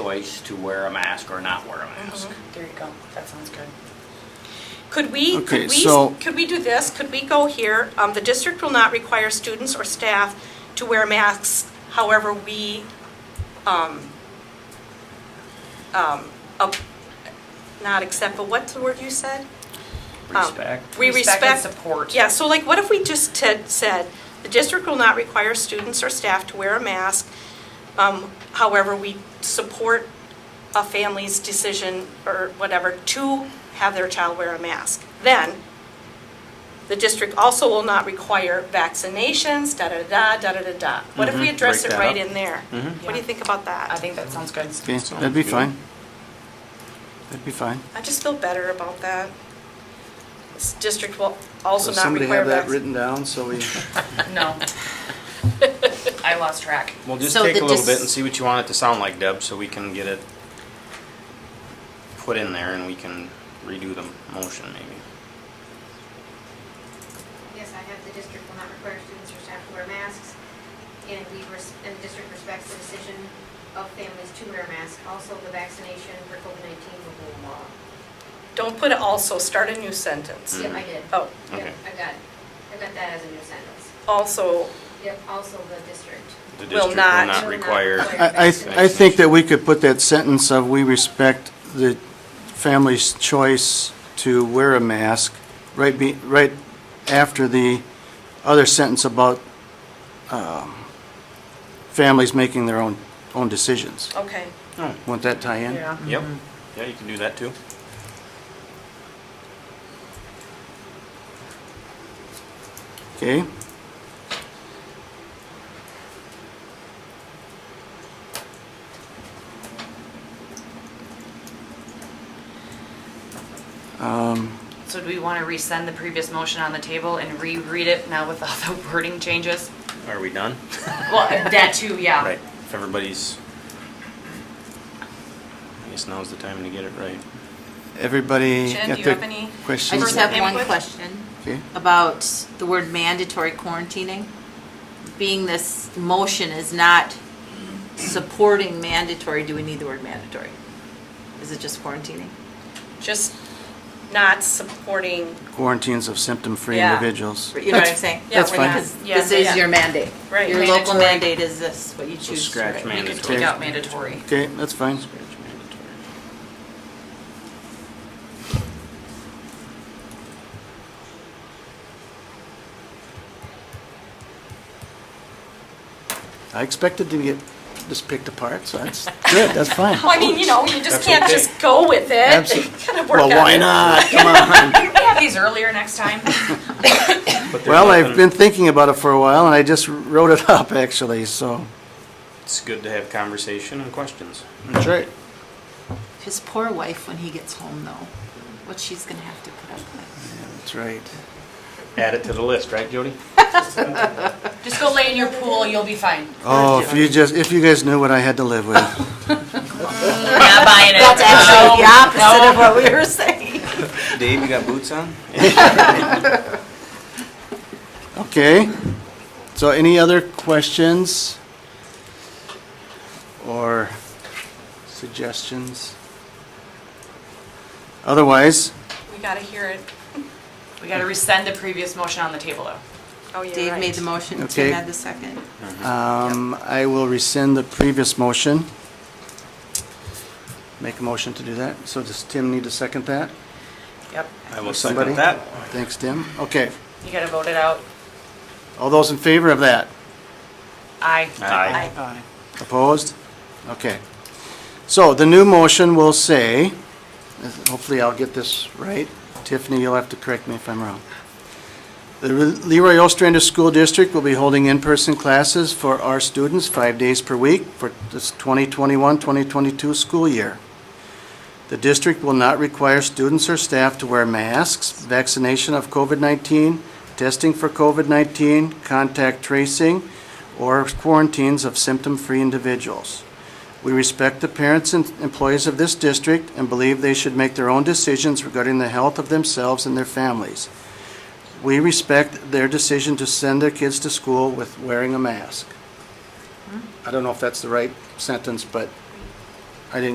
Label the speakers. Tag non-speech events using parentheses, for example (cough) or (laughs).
Speaker 1: choice to wear a mask or not wear a mask.
Speaker 2: There you go, that sounds good. Could we,
Speaker 3: Okay,
Speaker 2: could we,
Speaker 3: so-
Speaker 2: could we do this? Could we go here? Um, The district will not require students or staff to wear masks, however, we, um, um, up- not accept, but what's the word you said? Um,
Speaker 1: Respect.
Speaker 2: We
Speaker 4: Respect and
Speaker 2: respect.
Speaker 4: support.
Speaker 2: Yeah, so like, what if we just ted- said, the district will not require students or staff to wear a mask. Um, However, we support a family's decision or whatever to have their child wear a mask. Then, the district also will not require vaccinations, da-da-da, da-da-da-da. What
Speaker 3: Mm-hmm.
Speaker 2: if we
Speaker 1: Mhm,
Speaker 2: address
Speaker 1: break
Speaker 2: it
Speaker 1: that
Speaker 2: right
Speaker 1: up.
Speaker 2: in there? What do you
Speaker 4: Yeah.
Speaker 2: think about
Speaker 4: I
Speaker 2: that?
Speaker 4: think that sounds good.
Speaker 3: Okay, that'd be fine. That'd be fine.
Speaker 2: I just feel better about that. This district will also
Speaker 3: Does
Speaker 2: not
Speaker 3: somebody
Speaker 2: require
Speaker 3: have that
Speaker 2: vaccinations.
Speaker 3: written down,
Speaker 2: (laughs)
Speaker 3: so we,
Speaker 4: No. (laughs) I lost track.
Speaker 5: Well, just
Speaker 6: So
Speaker 5: take
Speaker 6: the
Speaker 5: a little
Speaker 6: dis-
Speaker 5: bit and see what you want it to sound like, Deb, so we can get it put in there and we can redo the motion maybe.
Speaker 7: Yes, I have the district will not require students or staff to wear masks, and we, res- and the district respects the decision of families to wear masks. Also, the vaccination for COVID-19 will go law.
Speaker 2: Don't put also, start a new sentence.
Speaker 7: Yep, I did.
Speaker 2: Oh,
Speaker 7: Yep,
Speaker 5: Okay.
Speaker 7: I got, I got that as a new sentence.
Speaker 2: also,
Speaker 7: Yep, also the district.
Speaker 5: The district
Speaker 2: Will
Speaker 5: will
Speaker 2: not-
Speaker 5: not
Speaker 7: Will not
Speaker 5: require,
Speaker 7: require-
Speaker 3: I, I, I think that we could put that sentence of, we respect the family's choice to wear a mask, right be, right after the other sentence about, um, families making their own, own decisions.
Speaker 2: okay.
Speaker 3: Won't that tie in?
Speaker 4: Yeah.
Speaker 5: yep, yeah, you can do that too.
Speaker 3: Okay? Um,
Speaker 4: So do we want to rescind the previous motion on the table and reread it now with all the wording changes?
Speaker 5: Are we done?
Speaker 4: Well, that too, yeah.
Speaker 5: Right, if everybody's, I guess now's the time to get it right.
Speaker 3: Everybody
Speaker 2: Jen,
Speaker 3: got
Speaker 2: do you
Speaker 3: their
Speaker 2: have any-
Speaker 6: I
Speaker 3: questions?
Speaker 6: just have one
Speaker 2: Input?
Speaker 6: question
Speaker 3: Okay.
Speaker 6: about the word mandatory quarantining. Being this motion is not supporting mandatory, do we need the word mandatory? Is it just quarantining?
Speaker 2: Just not supporting,
Speaker 3: Quarantines of symptom-free
Speaker 2: Yeah.
Speaker 3: individuals.
Speaker 6: You know what I'm saying?
Speaker 2: Yeah,
Speaker 3: That's
Speaker 2: we're
Speaker 3: fine.
Speaker 2: not-
Speaker 6: Because
Speaker 2: Yeah,
Speaker 6: This is
Speaker 2: yeah.
Speaker 6: your mandate.
Speaker 2: Right.
Speaker 6: Your local
Speaker 4: Mandatory.
Speaker 6: mandate is this, what you
Speaker 5: So
Speaker 6: choose.
Speaker 5: scratch
Speaker 6: right?
Speaker 4: You could
Speaker 5: mandatory.
Speaker 4: take out mandatory. (laughs)
Speaker 3: Okay, that's fine.
Speaker 5: Scratch mandatory.
Speaker 3: I expected to get just picked apart, so that's good, that's
Speaker 2: (laughs)
Speaker 3: fine.
Speaker 2: well, I mean, you know, you just
Speaker 5: That's
Speaker 2: can't
Speaker 5: okay.
Speaker 2: just go with it. You
Speaker 3: Absolutely.
Speaker 2: gotta work
Speaker 3: Well,
Speaker 2: on
Speaker 3: why
Speaker 2: it.
Speaker 3: not? Come (laughs) on.
Speaker 4: Can (laughs) we have these earlier
Speaker 5: (laughs)
Speaker 4: next time?
Speaker 5: But there's
Speaker 3: Well, I've
Speaker 5: nothing-
Speaker 3: been thinking about it for a while, and I just wrote it up, actually, so.
Speaker 5: It's good to have conversation and questions.
Speaker 3: That's right.
Speaker 6: His poor wife, when he gets home though, what she's gonna have to put up with.
Speaker 3: That's right.
Speaker 5: Add it to the list, right, Jody?
Speaker 4: Just go lay in your pool, you'll be fine.
Speaker 3: Oh, if you just, if you guys knew what I had to live with.
Speaker 4: We're not buying it.
Speaker 6: (laughs) That's
Speaker 4: Um,
Speaker 6: actually the opposite of what we were saying.
Speaker 5: Dave, you got boots on?
Speaker 3: Okay. So any other questions? Or suggestions? Otherwise,
Speaker 2: We gotta hear it.
Speaker 4: We got to rescind the previous motion on the table though.
Speaker 2: Oh, yeah.
Speaker 6: Dave made the motion,
Speaker 3: Okay.
Speaker 6: Tim had the second.
Speaker 3: um, I will rescind the previous motion. Make a motion to do that. So does Tim need to second that?
Speaker 4: Yep.
Speaker 5: I will
Speaker 3: Somebody?
Speaker 5: second that.
Speaker 3: Thanks, Tim. Okay.
Speaker 4: You got to vote it out.
Speaker 3: All those in favor of that?
Speaker 4: Aye.
Speaker 5: Aye.
Speaker 3: Aye. Opposed? Okay. So the new motion will say, hopefully I'll get this right. Tiffany, you'll have to correct me if I'm wrong. The Leroy Ostrander School District will be holding in-person classes for our students five days per week for this 2021-2022 school year. The district will not require students or staff to wear masks, vaccination of COVID-19, testing for COVID-19, contact tracing, or quarantines of symptom-free individuals. We respect the parents and employees of this district and believe they should make their own decisions regarding the health of themselves and their families. We respect their decision to send their kids to school with wearing a mask. I don't know if that's the right sentence, but